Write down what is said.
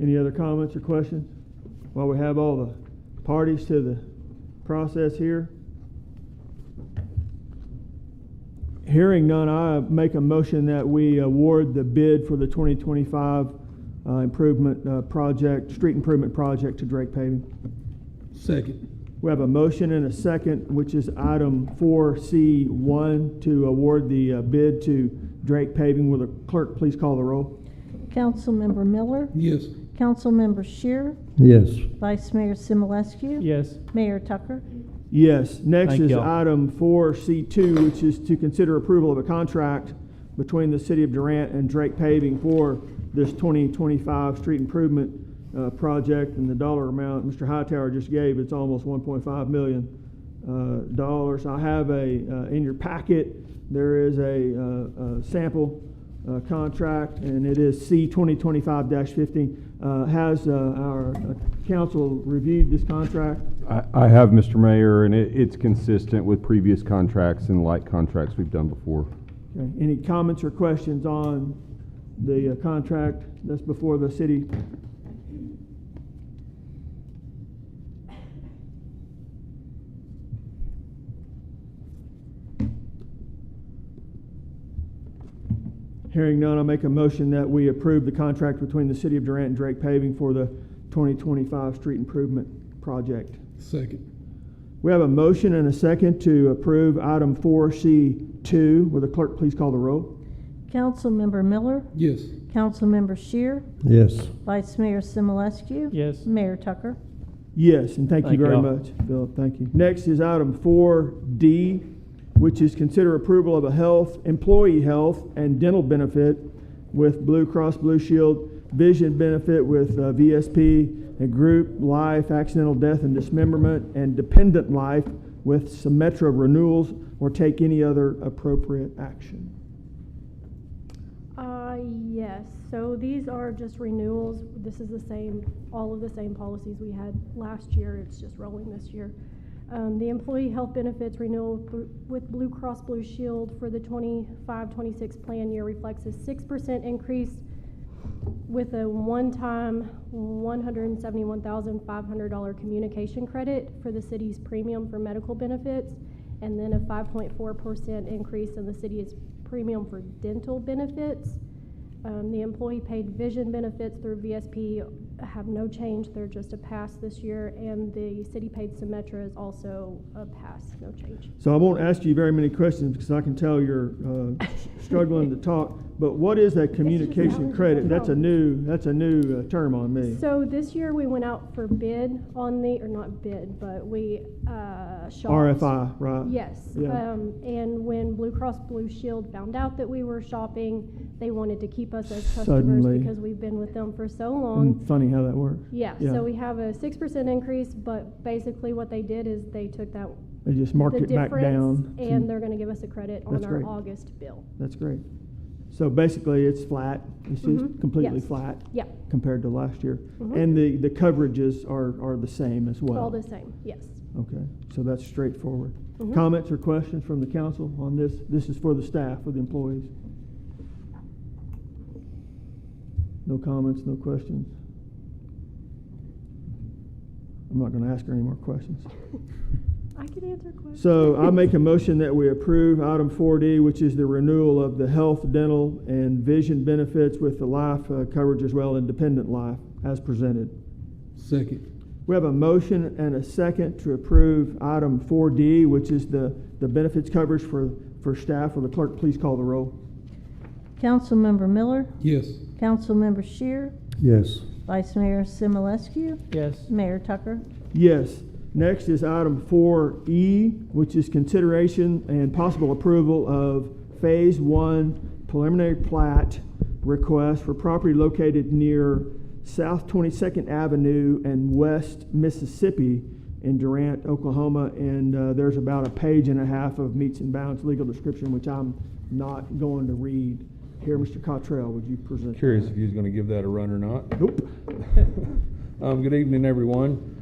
Any other comments or questions? While we have all the parties to the process here. Hearing none, I make a motion that we award the bid for the 2025 uh, improvement uh, project, street improvement project to Drake Paving. Second. We have a motion and a second, which is item four C one, to award the uh, bid to Drake Paving. Will the clerk please call the roll? Councilmember Miller, Yes. Councilmember Shear, Yes. Vice Mayor Simulescu. Yes. Mayor Tucker. Yes, next Thank is y'all. item four C two, which is to consider approval of a contract between the city of Durant and Drake Paving for this twenty twenty-five street improvement, uh, project, and the dollar amount Mr. Hightower just gave, it's almost one point five million, uh, dollars. I have a, uh, in your packet, there is a, uh, uh, sample, uh, contract, and it is C 2025-15. Uh, Has uh, our uh, council reviewed this contract? I, I have, Mr. Mayor, and it, it's consistent with previous contracts and like contracts we've done before. Okay. Any comments or questions on the uh, contract that's before the city? Hearing none, I make a motion that we approve the contract between the city of Durant and Drake Paving for the 2025 street improvement project. Second. We have a motion and a second to approve item four C two. Will the clerk please call the roll? Councilmember Miller, Yes. Councilmember Shear, Yes. Vice Mayor Simulescu. Yes. Mayor Tucker. Yes, and thank you Thank very y'all. much, Philip. Thank you. Next is item four D, which is consider approval of a health, employee health and dental benefit with Blue Cross Blue Shield, vision benefit with uh, VSP, and group life, accidental death and dismemberment, and dependent life with Symetra renewals, or take any other appropriate action. Uh, yes, so these are just renewals. This is the same, all of the same policies we had last year, it's just rolling this year. Um, the employee health benefits renewal br- with Blue Cross Blue Shield for the 25-26 plan year reflects a six percent increase with a one-time one hundred and seventy-one thousand five hundred dollar communication credit for the city's premium for medical benefits, and then a five point four percent increase in the city's premium for dental benefits. Um, the employee-paid vision benefits through VSP have no change, they're just a pass this year, and the city-paid Symetra is also a pass, no change. So I won't ask you very many questions because I can tell you're uh, struggling to talk. But what is that communication allergy credit? control. That's a new, that's a new uh, term on me. So this year, we went out for bid on the, or not bid, but we, uh, shopped. RFI, right? Yes, Yeah. um, and when Blue Cross Blue Shield found out that we were shopping, they wanted to keep us as customers Suddenly. because we've been with them for so long. Isn't it Hmm, Funny how that works. Yeah, yeah. so we have a six percent increase, but basically what they did is they took that, They just the marked it back difference, down. to- and they're gonna give us a credit That's on our great. August bill. That's great. So basically, it's flat. It's just Mhm, completely yes. flat Yeah, compared to last year. Mhm. And the, the coverages are, are the same as well. all the same, yes. Okay, so that's straightforward. Mhm. Comments or questions from the council on this? This is for the staff, for the employees. No comments, no questions? I'm not gonna ask her any more questions. I can answer questions. So I make a motion that we approve item four D, which is the renewal of the health, dental, and vision benefits with the life uh, coverage as well, independent life, as presented. Second. We have a motion and a second to approve item 4D, which is the, the benefits coverage for, for staff. Will the clerk please call the roll? Councilmember Miller, Yes. Councilmember Shear, Yes. Vice Mayor Simulescu. Yes. Mayor Tucker. Yes. Next is item 4E, which is consideration and possible approval of Phase 1 preliminary plat request for property located near South 22nd Avenue and West Mississippi in Durant, Oklahoma. And uh, there's about a page and a half of meets and bounds legal description, which I'm not going to read. Here, Mr. Cottrell, would you present? that? Curious if you was gonna give that a run or not. Nope. Um, good evening, everyone.